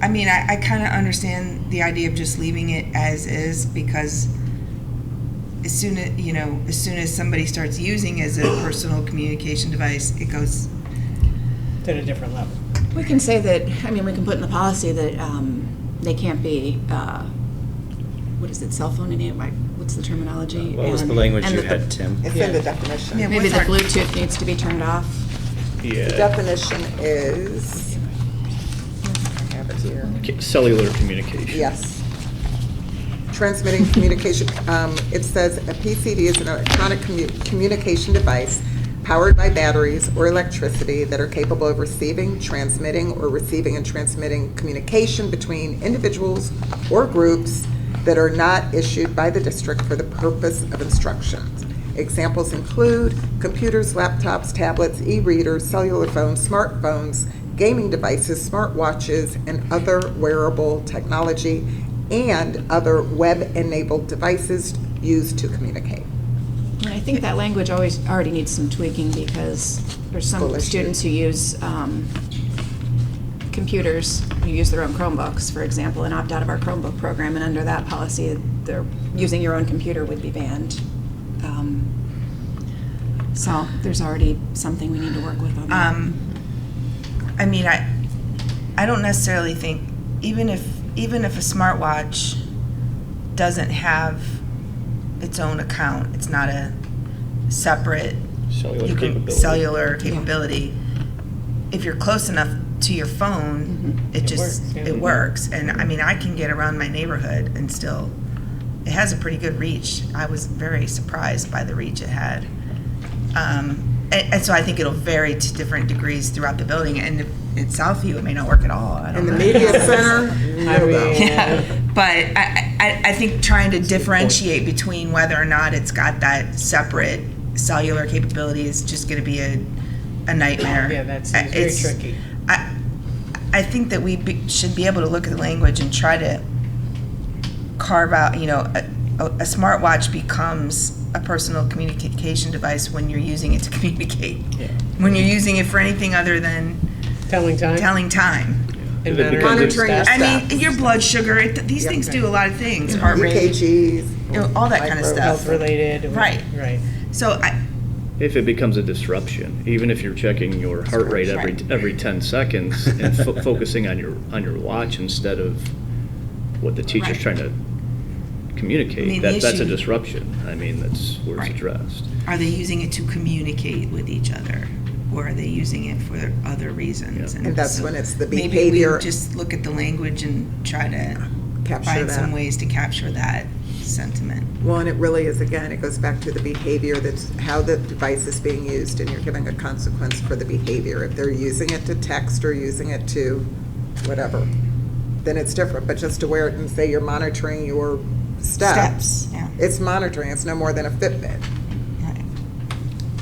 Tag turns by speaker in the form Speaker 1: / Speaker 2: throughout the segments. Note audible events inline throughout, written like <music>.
Speaker 1: I mean, I, I kind of understand the idea of just leaving it as is because as soon as you know, as soon as somebody starts using as a personal communication device, it goes.
Speaker 2: at a different level.
Speaker 3: We can say that, I mean, we can put in the policy that um, they can't be, uh, what is it, cell phone enabled, like, what's the terminology?
Speaker 4: What was the
Speaker 3: And-
Speaker 4: language
Speaker 3: and
Speaker 4: you
Speaker 3: that the-
Speaker 4: had, Tim?
Speaker 5: It's in the
Speaker 2: Yeah.
Speaker 5: definition.
Speaker 1: Yeah,
Speaker 3: Maybe the
Speaker 1: What's our-
Speaker 3: Bluetooth needs to be turned off.
Speaker 5: The definition is, I have it here,
Speaker 6: Cellular communication.
Speaker 5: yes. Transmitting communication, um, it says a PCD is an electronic commu- communication device powered by batteries or electricity that are capable of receiving, transmitting, or receiving and transmitting communication between individuals or groups that are not issued by the district for the purpose of instructions. Examples include computers, laptops, tablets, e-readers, cellular phones, smartphones, gaming devices, smartwatches, and other wearable technology, and other web-enabled devices used to communicate.
Speaker 3: And I think that language always, already needs some tweaking because there's
Speaker 5: Well,
Speaker 3: some
Speaker 5: let's do-
Speaker 3: students who use um, computers, who use their own Chromebooks, for example, and opt out of our Chromebook program, and under that policy, they're, using your own computer would be banned. Um, So there's already something we need to work with on that.
Speaker 1: Um, I mean, I, I don't necessarily think even if even if a smartwatch doesn't have its own account, it's not a separate
Speaker 6: Cellular
Speaker 1: you can-
Speaker 6: capability.
Speaker 1: cellular capability. If you're close enough to your phone, it
Speaker 2: It
Speaker 1: just
Speaker 2: works, yeah.
Speaker 1: it works. And I mean, I can get around my neighborhood and still. It has a pretty good reach. I was very surprised by the reach it had. Um, and, and so I think it'll vary to different degrees throughout the building. And in Southview, it may not work at all. I don't
Speaker 5: In the
Speaker 1: know. <laughs>
Speaker 5: media center,
Speaker 2: I
Speaker 5: no go.
Speaker 2: mean,
Speaker 1: But I, I, I think trying to differentiate between whether or not it's got that separate cellular capability is just gonna be a, a nightmare. Uh,
Speaker 2: Yeah, that seems very
Speaker 1: It's-
Speaker 2: tricky.
Speaker 1: I, I think that we be- should be able to look at the language and try to carve out, you know, a, a a smartwatch becomes a personal communication device when you're using it to <laughs> communicate. When you're using it for anything other than
Speaker 2: telling time
Speaker 1: telling time.
Speaker 2: and
Speaker 6: It becomes-
Speaker 2: monitoring
Speaker 5: Monitoring your
Speaker 2: staff.
Speaker 1: I mean, your blood sugar, it, these things do a lot of things, heart rate, you
Speaker 5: EKGs.
Speaker 1: know, all that kind of
Speaker 5: Micro-
Speaker 1: stuff.
Speaker 2: Health related. or-
Speaker 1: Right.
Speaker 2: Right.
Speaker 1: So I,
Speaker 6: If it becomes a disruption, even if you're checking your heart rate every, every 10 seconds
Speaker 1: <laughs>
Speaker 6: and fo- focusing on your, on your watch instead of what the teacher's
Speaker 1: Right.
Speaker 6: trying to
Speaker 1: I mean,
Speaker 6: communicate,
Speaker 1: the
Speaker 6: that, that's a
Speaker 1: issue-
Speaker 6: disruption. I mean, that's where it's
Speaker 1: Right.
Speaker 6: addressed.
Speaker 1: are they using it to communicate with each other? Or are they using it for other reasons?
Speaker 6: Yeah.
Speaker 5: And that's
Speaker 1: so
Speaker 5: when it's the
Speaker 1: Maybe
Speaker 5: behavior
Speaker 1: we just look at the language and try to
Speaker 5: capture
Speaker 1: find some
Speaker 5: that.
Speaker 1: ways to capture that sentiment.
Speaker 5: Well, and it really is, again, it goes back to the behavior that's, how the device is being used, and you're giving a consequence for the behavior. If they're using it to text or using it to whatever, then it's different. But just to wear it and say you're monitoring your steps,
Speaker 1: Steps, yeah.
Speaker 5: it's monitoring, it's no more than a Fitbit.
Speaker 1: Right.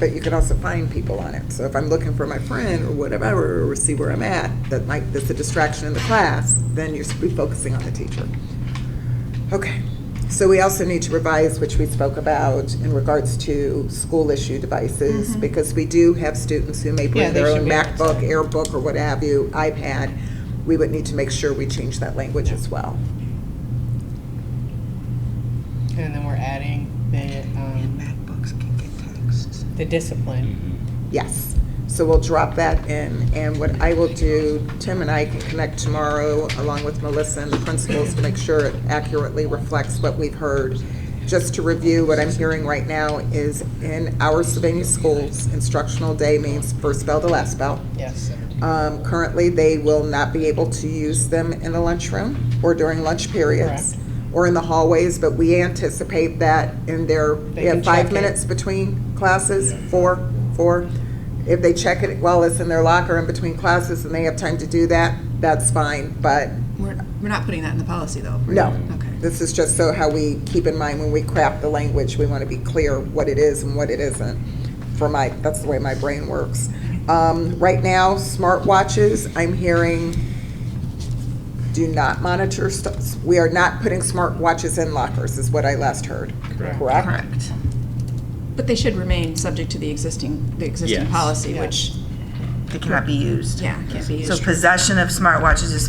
Speaker 5: But you can also find people on it. So if I'm looking for my friend or whatever, or see where I'm at, that might, that's a distraction in the class, then you're be focusing on the teacher. Okay. So we also need to revise, which we spoke about, in regards to school issue devices, because we do have students who may
Speaker 2: Mm-hmm. Yeah,
Speaker 5: bring
Speaker 2: they
Speaker 5: their
Speaker 2: should
Speaker 5: own
Speaker 2: be
Speaker 5: MacBook, AirBook, or what have you, iPad. We would need to make sure we change that language as well.
Speaker 2: And then we're adding the, um,
Speaker 1: MacBooks can get texts.
Speaker 2: the discipline.
Speaker 5: Yes. So we'll drop that in, and what I will do, Tim and I can connect tomorrow, along with Melissa and the principals, to make sure it accurately reflects what we've heard. Just to review, what I'm hearing right now is in our Sylvania schools, instructional day means first bell to last bell.
Speaker 2: Yes.
Speaker 5: Um, Currently, they will not be able to use them in the lunchroom or during lunch periods or in the hallways, but we anticipate that in their,
Speaker 2: They
Speaker 5: they have
Speaker 2: can check
Speaker 5: five
Speaker 2: it.
Speaker 5: minutes between classes, four, four. If they check it while it's in their locker in between classes and they have time to do that, that's fine, but
Speaker 3: We're, we're not putting that in the policy, though. right?
Speaker 5: no.
Speaker 3: Okay.
Speaker 5: This is just so how we keep in mind when we craft the language, we want to be clear what it is and what it isn't. For my, that's the way my brain works. Um, right now, smartwatches, I'm hearing, do not monitor, st- we are not putting smartwatches in lockers, is what I last heard.
Speaker 6: Correct.
Speaker 3: Correct. But they should remain subject to the existing, the existing
Speaker 4: Yes.
Speaker 3: policy,
Speaker 2: Yeah.
Speaker 3: which,
Speaker 1: They cannot be used.
Speaker 3: yeah, can't be used.
Speaker 1: So possession of smartwatches is